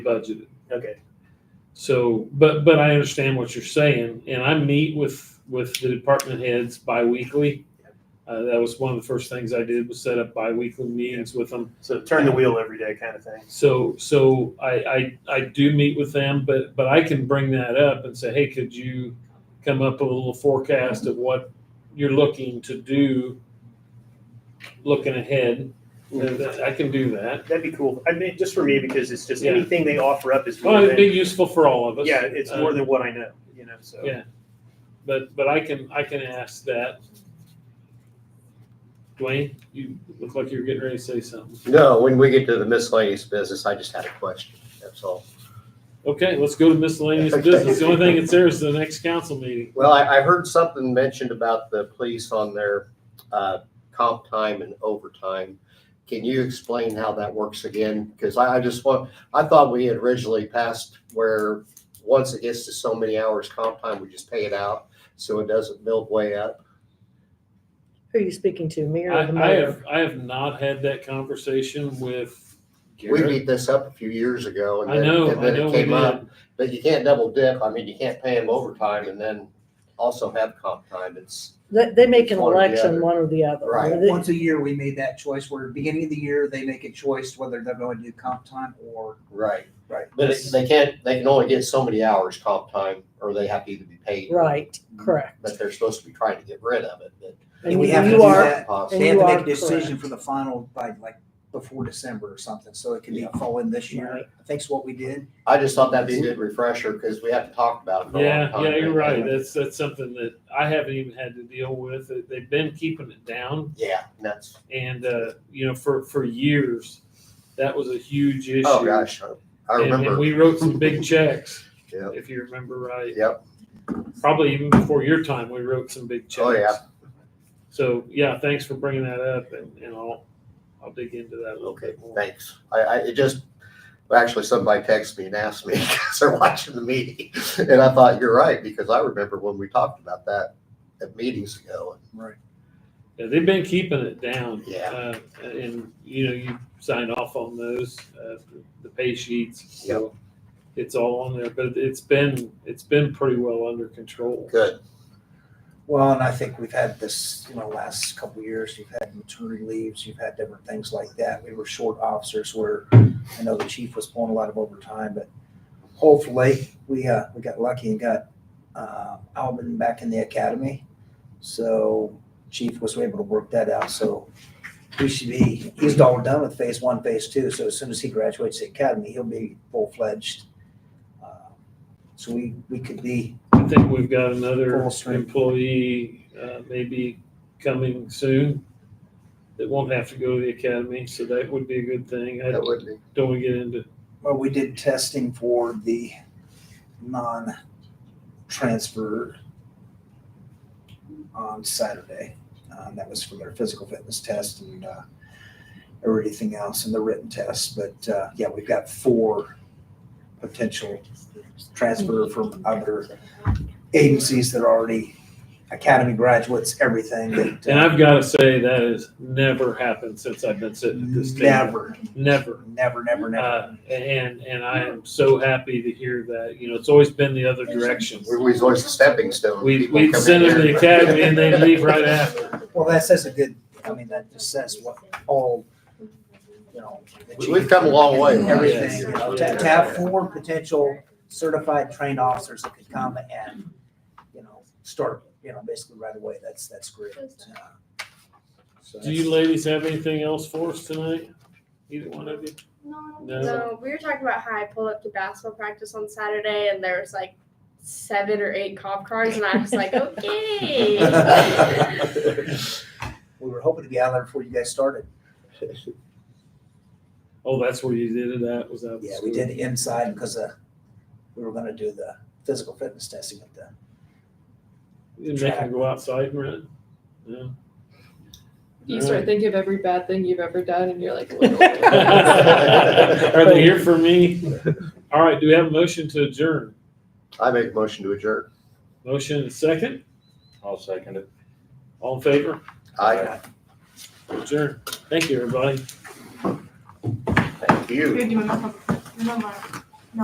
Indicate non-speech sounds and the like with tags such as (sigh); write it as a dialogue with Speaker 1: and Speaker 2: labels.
Speaker 1: budgeted.
Speaker 2: Okay,
Speaker 1: So, but, but I understand what you're saying, and I meet with, with the department heads bi-weekly. Uh, that was one of the first things I did was set up bi-weekly meetings with them.
Speaker 2: so turn the wheel every day kind of thing.
Speaker 1: So, so I, I, I do meet with them, but, but I can bring that up and say, hey, could you come up with a little forecast of what you're looking to do, looking ahead?
Speaker 2: Mm-hmm.
Speaker 1: And that- I can do that.
Speaker 2: That'd be cool. I mean, just for me, because it's just
Speaker 1: Yeah.
Speaker 2: anything they offer up is
Speaker 1: Well,
Speaker 2: more
Speaker 1: it'd be
Speaker 2: than,
Speaker 1: useful for all of us.
Speaker 2: yeah, it's more
Speaker 1: Uh,
Speaker 2: than what I know, you know, so.
Speaker 1: Yeah. But, but I can, I can ask that. Dwayne, you look like you're getting ready to say something.
Speaker 3: No, when we get to the miscellaneous business, I just had a question, that's all.
Speaker 1: Okay, let's go to miscellaneous business. The only thing that's there is the next council meeting.
Speaker 3: Well, I, I heard something mentioned about the police on their, uh, comp time and overtime. Can you explain how that works again? Because I, I just want, I thought we had originally passed where once it gets to so many hours comp time, we just pay it out, so it doesn't build way up.
Speaker 4: Who are you speaking to, me
Speaker 1: I,
Speaker 4: or
Speaker 1: I
Speaker 4: the mayor?
Speaker 1: have, I have not had that conversation with
Speaker 3: We
Speaker 1: Garrett.
Speaker 3: beat this up a few years ago and
Speaker 1: I
Speaker 3: then,
Speaker 1: know,
Speaker 3: and
Speaker 1: I
Speaker 3: then
Speaker 1: know
Speaker 3: it
Speaker 1: we
Speaker 3: came up.
Speaker 1: did.
Speaker 3: But you can't double dip, I mean, you can't pay them overtime and then also have comp time, it's.
Speaker 4: They, they make an
Speaker 3: One or the
Speaker 4: election,
Speaker 3: other.
Speaker 4: one or the other.
Speaker 3: Right.
Speaker 4: They-
Speaker 5: Once a year, we made that choice, where beginning of the year, they make a choice whether they're going to do comp time or,
Speaker 3: Right.
Speaker 5: Right.
Speaker 3: But it- they can't, they can only get so many hours comp time, or they have to either be paid.
Speaker 4: Right, correct.
Speaker 3: But they're supposed to be trying to get rid of it, but.
Speaker 4: And
Speaker 5: And we
Speaker 4: you
Speaker 5: have to
Speaker 4: you
Speaker 5: do
Speaker 4: are,
Speaker 5: that.
Speaker 4: And
Speaker 5: they
Speaker 3: Possibly.
Speaker 5: have
Speaker 4: you
Speaker 5: to
Speaker 4: are
Speaker 5: make a decision
Speaker 4: correct.
Speaker 5: for the final by like before December or something, so it can be
Speaker 3: Yeah.
Speaker 5: fall in this year.
Speaker 4: Right.
Speaker 5: I think's what we did.
Speaker 3: I just thought that'd be a good refresher, because we haven't talked about it for a long
Speaker 1: Yeah,
Speaker 3: time.
Speaker 1: yeah, you're right. That's, that's something that I haven't even had to deal with. They- They've been keeping it down
Speaker 3: Yeah, and that's,
Speaker 1: and, uh, you know, for, for years, that was a huge issue.
Speaker 3: oh gosh, I- I
Speaker 1: And- And
Speaker 3: remember,
Speaker 1: we wrote some
Speaker 3: (laughs)
Speaker 1: big checks,
Speaker 3: Yep.
Speaker 1: if you remember right.
Speaker 3: Yep.
Speaker 1: Probably even before your time, we wrote some big checks.
Speaker 3: Oh, yeah.
Speaker 1: So, yeah, thanks for bringing that up and, and I'll, I'll dig into that a little
Speaker 3: okay,
Speaker 1: bit more.
Speaker 3: thanks. I, I, it just, well, actually, somebody texted me and asked me, (laughs) because they're watching the meeting, and I thought, you're right, because I remember when we talked about that at meetings ago,
Speaker 5: Right.
Speaker 1: Yeah, they've been keeping it down.
Speaker 3: Yeah.
Speaker 1: Uh, and, you know, you signed off on those, uh, the pay sheets. So It's all on there, but it's been, it's been pretty well under control.
Speaker 3: good,
Speaker 5: Well, and I think we've had this, you know, last couple of years, you've had maternity leaves, you've had different things like that. We were short officers where I know the chief was pulling a lot of overtime, but hopefully we, uh, we got lucky and got, uh, Alvin back in the academy. So chief was able to work that out, so we should be, he's all done with phase one, phase two. So as soon as he graduates the academy, he'll be full-fledged. Uh, So we, we could be,
Speaker 1: I think we've got another
Speaker 5: Full strength.
Speaker 1: employee, uh, maybe coming soon that won't have to go to the academy, so that would be a good thing. I
Speaker 3: that would be.
Speaker 1: don't want to get into,
Speaker 5: Well, we did testing for the non-transfer on Saturday. Um, that was for their physical fitness test and uh, everything else and the written test. But uh, yeah, we've got four potential transfer from other agencies that are already academy graduates, everything. That,
Speaker 1: and I've got to say, that has never happened since I've been sitting at this table.
Speaker 5: uh, never,
Speaker 1: Never.
Speaker 5: never, never, never.
Speaker 1: Uh, and, and I am so happy to hear that, you know, it's always been the other direction.
Speaker 3: We was always the stepping stone.
Speaker 1: We,
Speaker 3: People
Speaker 1: we'd
Speaker 3: come in
Speaker 1: send them to the
Speaker 3: here.
Speaker 1: academy and they'd leave
Speaker 3: (laughs)
Speaker 1: right after.
Speaker 5: Well, that says a good, I mean, that just says what all, you know. that
Speaker 3: We-
Speaker 5: you-
Speaker 3: We've come a long way. in the last
Speaker 5: Everything,
Speaker 3: few
Speaker 5: you
Speaker 3: years.
Speaker 5: know, to, to have four potential certified trained officers that could come and, you know, start, you know, basically right away, that's, that's great. Uh, so
Speaker 1: Do you ladies have anything else for us tonight? Either one of you? No.
Speaker 6: No, we were talking about how I pulled up to basketball practice on Saturday and there was like seven or eight cop cars and I was
Speaker 5: (laughs)
Speaker 6: like, okay.
Speaker 5: We were hoping to be out of there before you guys started.
Speaker 1: Oh, that's where you did it at, was that?
Speaker 5: Yeah, we did it inside because, uh, we were gonna do the physical fitness testing at the
Speaker 1: You didn't make them go outside and run? No.
Speaker 7: You start thinking of every bad thing you've ever done, and you're
Speaker 4: (laughs)
Speaker 7: like,
Speaker 1: (laughs) Are they here for me? All right, do we have a motion to adjourn?
Speaker 3: I make a motion to adjourn.
Speaker 1: Motion and second?
Speaker 8: I'll second it.
Speaker 1: All in favor?
Speaker 3: I,
Speaker 1: Adjourn. Thank you, everybody.
Speaker 3: thank you.
Speaker 7: Good, you remember- remember.